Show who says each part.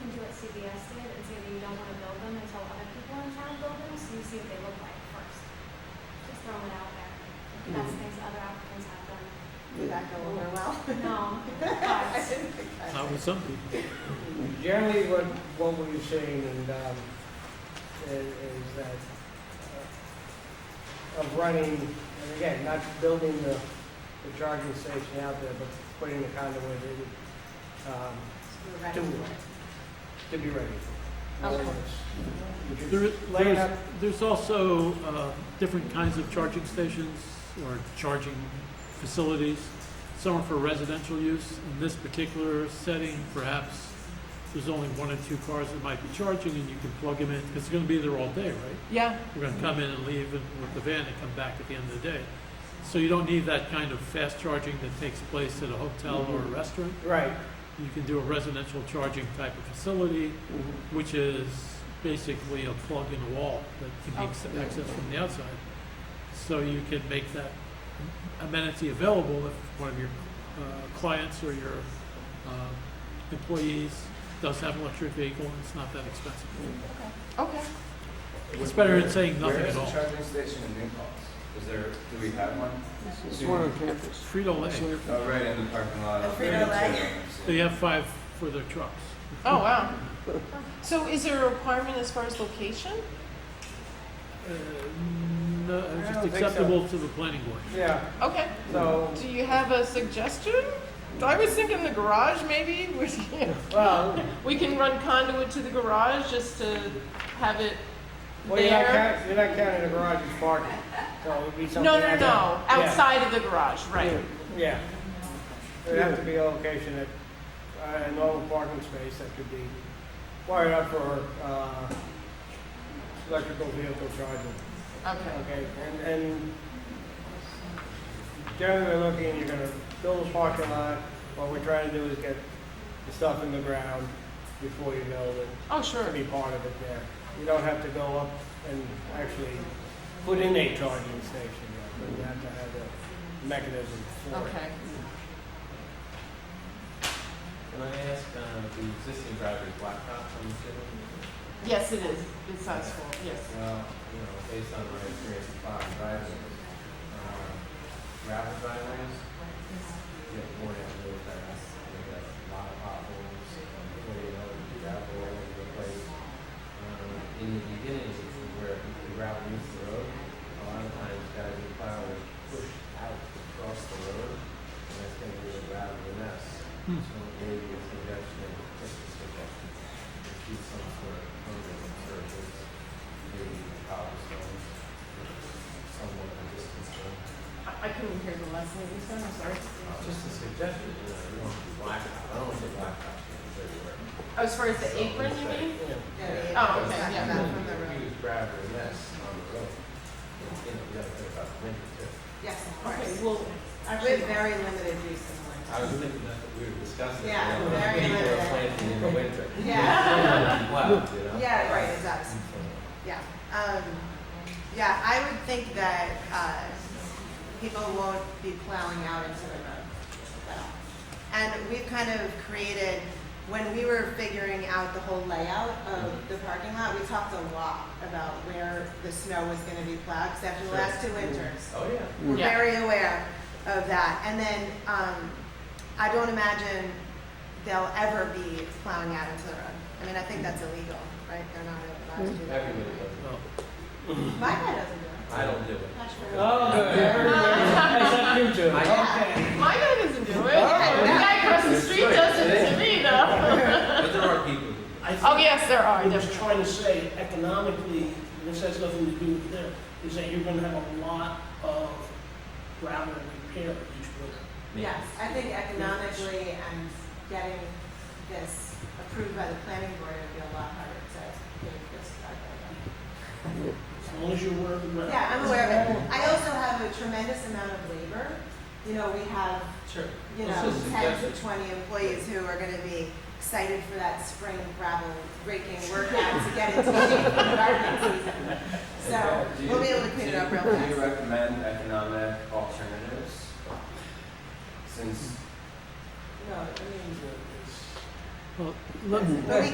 Speaker 1: CVS did and say that you don't wanna build them until other people in town build them, so you see what they look like first. Just throwing it out there. That's things other applicants have done.
Speaker 2: Did that go over well?
Speaker 1: No,
Speaker 2: I
Speaker 1: but
Speaker 2: didn't think I-
Speaker 3: Not with some people.
Speaker 4: Generally, what, what we're seeing and, um, is, is that uh, of running, and again, not building the, the charging station out there, but putting the conduit in, um,
Speaker 2: We were ready
Speaker 4: Do
Speaker 2: for
Speaker 4: it.
Speaker 2: it.
Speaker 4: to be ready. for it.
Speaker 2: Okay.
Speaker 4: Would you
Speaker 3: There is,
Speaker 4: lay it
Speaker 3: there's,
Speaker 4: up?
Speaker 3: there's also, uh, different kinds of charging stations or charging facilities. Some are for residential use. In this particular setting, perhaps there's only one or two cars that might be charging and you can plug them in. 'cause It's gonna be there all day, right?
Speaker 2: Yeah.
Speaker 3: We're gonna come in and leave and- with the van and come back at the end of the day. So you don't need that kind of fast charging that takes place at a hotel or a restaurant.
Speaker 4: Right.
Speaker 3: You can do a residential charging type of facility,
Speaker 4: Mm-hmm.
Speaker 3: which is basically a plug in the wall that can be
Speaker 4: Oh.
Speaker 3: ex- accessed from the outside. So you can make that amenity available if one of your uh, clients or your uh, employees does have an electric vehicle and it's not that expensive.
Speaker 2: Okay.
Speaker 3: It's better than saying nothing at
Speaker 5: Where
Speaker 3: all.
Speaker 5: is the charging station in New Paltz? Is there, do we have one?
Speaker 6: It's one on campus.
Speaker 3: Frito Lay,
Speaker 5: Oh, right in the parking lot. of
Speaker 2: Frito-Lay.
Speaker 3: they have five for their trucks.
Speaker 7: Oh, wow. So is there a requirement as far as location?
Speaker 3: Uh, No, it's
Speaker 4: I
Speaker 3: just
Speaker 4: don't think so.
Speaker 3: acceptable to the planning board.
Speaker 4: Yeah,
Speaker 7: Okay.
Speaker 4: so,
Speaker 7: Do you have a suggestion? I was thinking the garage, maybe. We
Speaker 4: well,
Speaker 7: we can run conduit to the garage just to have it
Speaker 4: well, you're not
Speaker 7: there.
Speaker 4: counting, you're not counting the garage as parking, so it would be something.
Speaker 7: No, no,
Speaker 4: like
Speaker 7: no,
Speaker 4: that. Yeah.
Speaker 7: outside of the garage, right.
Speaker 4: Yeah. There'd have to be a location that, uh, a normal parking space that could be wired up for, uh, electrical vehicle charging,
Speaker 7: Okay,
Speaker 4: okay? And, and generally, we're looking, you're gonna build a parking lot, what we're trying to do is get the stuff in the ground before you build it,
Speaker 7: oh,
Speaker 4: to
Speaker 7: sure,
Speaker 4: be part of it there. You don't have to go up and actually put in a charging station, yet, but you have to have a mechanism for it.
Speaker 7: okay.
Speaker 8: Can I ask, uh, the existing driver is blacktop, I'm assuming?
Speaker 7: Yes, it is, it's size four, yes.
Speaker 8: Well, you know, based on my experience with five drivers, uh, gravel driveways, you get worn out really fast. They got a lot of potholes, and before you know it, the gravel all over the place. Um, in the beginning, which is where the gravel meets the road, a lot of times guys in plow will push out across the road, and that's gonna be a gravel mess.
Speaker 3: Hmm.
Speaker 8: So maybe a suggestion, just a suggestion, to do some sort of program and service, maybe the cobblestones, somewhat of a distance from.
Speaker 7: I I couldn't hear the last name you said, I'm sorry.
Speaker 8: Just a suggestion, you know, you don't want to black out, I don't want to say black out, it's everywhere.
Speaker 7: Oh, As far as the apron, you mean?
Speaker 4: Yeah.
Speaker 7: Oh, okay, yeah.
Speaker 2: Back from the road.
Speaker 8: Huge gravel mess on the road. And, you know, you gotta think about the winter too.
Speaker 2: Yes, of
Speaker 7: Okay,
Speaker 2: course.
Speaker 7: well,
Speaker 2: We
Speaker 7: actually,
Speaker 2: have very limited use in
Speaker 8: I
Speaker 2: winter.
Speaker 8: was thinking that we were discussing.
Speaker 2: Yeah,
Speaker 8: you know,
Speaker 2: very
Speaker 8: People
Speaker 2: limited.
Speaker 8: are planting in the winter.
Speaker 2: Yeah,
Speaker 8: Wow, you know?
Speaker 2: yeah, right, exactly. Yeah, um, yeah, I would think that, uh, people won't be plowing out into the road at all. And we've kind of created, when we were figuring out the whole layout of the parking lot, we talked a lot about where the snow was gonna be plowed, because after the last two winters,
Speaker 8: Oh, yeah.
Speaker 2: we're
Speaker 7: Yeah.
Speaker 2: very aware of that. And then, um, I don't imagine they'll ever be plowing out into the road. I mean, I think that's illegal, right? They're not allowed to do that.
Speaker 8: Mm-hmm. Everybody does
Speaker 3: Well,
Speaker 2: My guy doesn't do
Speaker 8: it. I don't Oh, do it.
Speaker 2: it. Not sure.
Speaker 4: Oh, good. Except you two.
Speaker 2: Yeah.
Speaker 7: my guy doesn't do it. The
Speaker 2: Oh.
Speaker 7: guy across the street does it to me, though.
Speaker 8: But there are people who.
Speaker 9: I think
Speaker 7: Oh, yes, there are,
Speaker 9: what I was
Speaker 7: definitely.
Speaker 9: trying to say economically, and this has nothing to do with them, is that you're gonna have a lot of gravel repair each winter.
Speaker 2: Yes, I think economically and getting this approved by the planning board would be a lot harder to get this project.
Speaker 9: As long as you're aware of the.
Speaker 2: Yeah, I'm aware of it. I also have a tremendous amount of labor. You know, we have,
Speaker 8: Sure.
Speaker 2: you
Speaker 8: It's
Speaker 2: know,
Speaker 8: just a
Speaker 2: ten to
Speaker 8: suggestion.
Speaker 2: twenty employees who are gonna be excited for that spring gravel raking workout to get into shape for gardening season. So,
Speaker 5: Do you-
Speaker 2: we'll be able to clean it up real
Speaker 5: do you- Do you
Speaker 2: fast.
Speaker 5: recommend economic alternatives? Since
Speaker 2: No, I mean,
Speaker 3: Well, let,
Speaker 2: but we